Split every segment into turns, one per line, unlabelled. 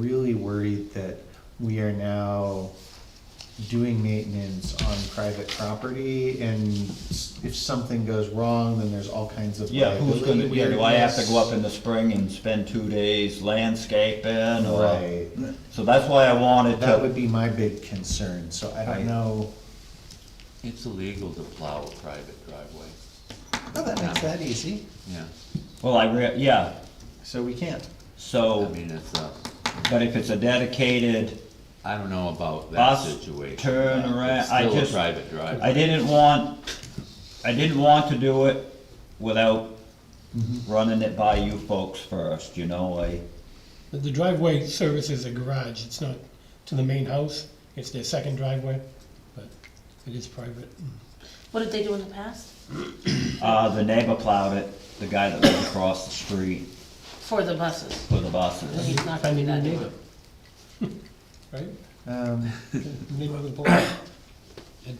really worried that we are now doing maintenance on private property and s- if something goes wrong, then there's all kinds of
Yeah, who's gonna,
liability
yeah, do I have to go up in
weirdness.
the spring and spend two days landscaping or?
Right.
So that's why I wanted
That would
to,
be my big concern, so I
I-
don't know,
It's illegal to plow a private driveway,
oh, that makes that easy,
yeah.
well, I rea, yeah,
so we can't.
I
so,
mean, it's a,
but if it's a dedicated,
I don't know about that
Bus
situation.
turn
but
around,
it's
I
still a
just-
private driveway.
I didn't want, I didn't want to do it without
Mm-hmm.
running it by you folks first, you know, I,
But the driveway services a garage, it's not to the main house, it's their second driveway, but it is private.
What did they do in the past?
uh, the neighbor plowed it, the guy that lived across the street
For the buses.
for the
So
buses.
he's not gonna be
Finding
that
a
neighbor.
Right?
Um,
The Name of the board? Ed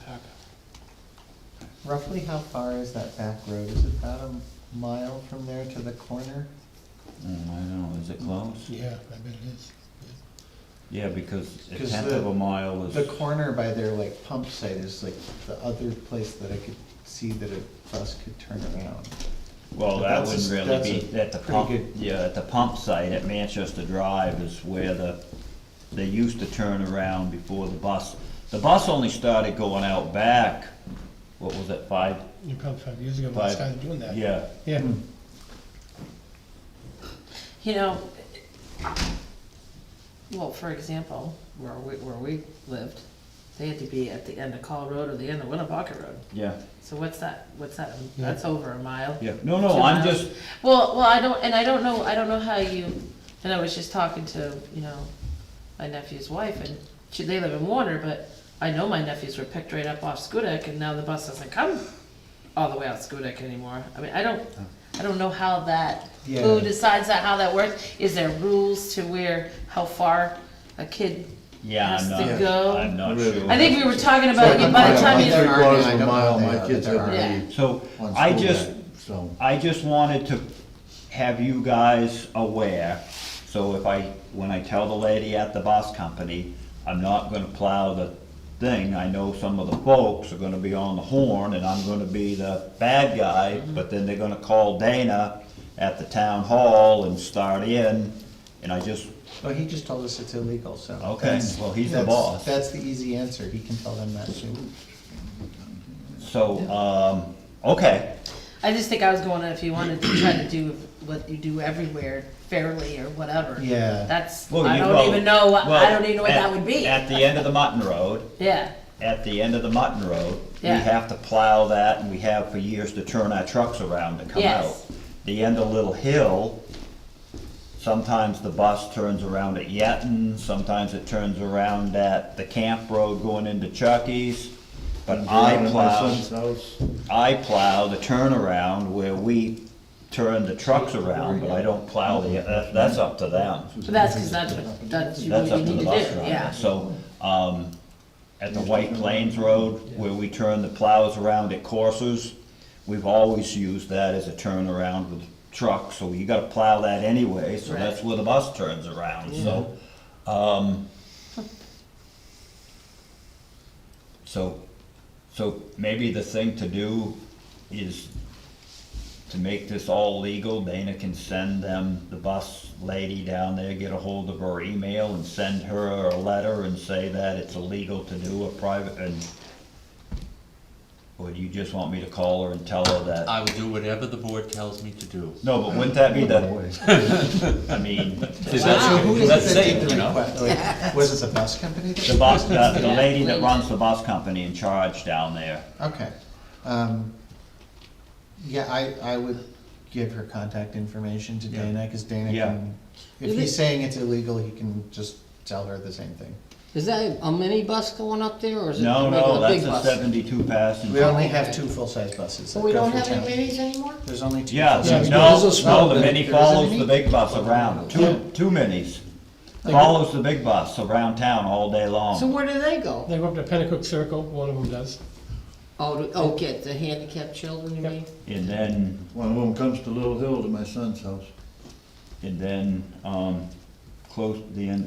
Parker.
roughly how far is that back road? Is it about a mile from there to the corner?
Mm, I don't know, is it close?
Yeah, I bet it is.
Yeah, because a
'Cause
tenth
the-
of a mile is.
The corner by their like pump site is like the other place that I could see that a bus could turn around.
Well,
But
that
that's
wouldn't
a-
really
that's
be,
a
at the
pretty
pump,
good-
yeah, at the pump site at Manchester Drive is where the, they used to turn around before the bus. The bus only started going out back, what was it, five?
You probably five years ago, when I
Five.
started doing that.
Yeah,
Yeah,
You know, well, for example, where we, where we lived, they had to be at the end of Call Road or the end of Winnebago Road.
yeah,
So what's that, what's that,
Yeah.
that's over a mile.
yeah. No,
Two
no, I'm
miles.
just,
Well, well, I don't, and I don't know, I don't know how you, and I was just talking to, you know, my nephew's wife, and she, they live in Warner, but I know my nephews were picked right up off Skudak, and now the bus doesn't come all the way out Skudak anymore. I mean, I don't, I don't know how that, who
Yeah.
decides that, how that works? Is there rules to where, how far a kid
yeah, I'm
Has
not,
to go.
I'm not
Really?
sure.
I think we were talking about, you- by the time
Three
you,
quarters of
I
a
don't
mile,
know
my
that
kids
there
have
are.
to be
So,
on
I
school
just,
day, so.
I just wanted to have you guys aware, so if I, when I tell the lady at the bus company, I'm not gonna plow the thing, I know some of the folks are gonna be on the horn, and I'm gonna be the bad guy, but then they're gonna call Dana at the town hall and start in, and I just,
Well, he just told us it's illegal, so.
Okay,
that's-
well, he's the
that's-
boss.
That's the easy answer, he can tell them that too.
so, um, okay,
I just think I was going, if you wanted to try to do what you do everywhere fairly or whatever.
Yeah.
That's,
Well,
I
you-
don't
well-
even know, what-
well,
I don't even know what
at-
that would be.
At the end of the Mutton Road,
Yeah,
at the end of the Mutton Road, we
Yeah.
have to plow that, and we have for years to turn our trucks around to come out.
Yes.
The end of Little Hill, sometimes the bus turns around at Yetton, sometimes it turns around at the Camp Road going into Chuckies. But I
Down at my
plow,
son's house,
I plow the turnaround where we turn the trucks around, but I don't plow the, that- that's up to them.
but that's because that's what, that's what
That's
you
up to
need
the
to do,
bus driver,
yeah.
so, um, at the White Plains Road, where we turn the plows around at courses, we've always used that as a turnaround with trucks, so you gotta plow that anyway, so that's
Right.
where the bus turns around, so, um, so, so maybe the thing to do is to make this all legal, Dana can send them, the bus lady down there, get a hold of her email and send her a letter and say that it's illegal to do a private, and, or do you just want me to call her and tell her that?
I will do whatever the board tells me to do.
No, but wouldn't that be the, I mean,
See, that's-
So who is it that
that's safe,
did the
you know?
request? Wait, Was it the bus company? that-
the bus, the the lady that runs the bus company in charge down there,
Okay, um, yeah, I, I would give her contact information to
Yeah.
Dana, cause Dana
Yeah.
can, if
Is
he's
it-
saying it's illegal, he can just tell her the same thing.
Is that a mini bus going up there, or is it
no,
making
no,
a
that's
big
a
bus?
seventy-two passenger.
We only have two full-size buses
So
that
we
go
don't
through
have any
town.
minis anymore?
There's only two.
Yeah,
full-size
no,
buses.
no, the mini
There isn't
follows
any?
the big bus around, two, two minis. Follows the big bus around town all day
So
long.
where do they go?
they go up to Pennacook Circle, one of them does.
Oh, to- oh, get the handicapped children, you
Yep.
mean?
And then,
One of them comes to Little Hill to my son's house.
and then, um, close, the end,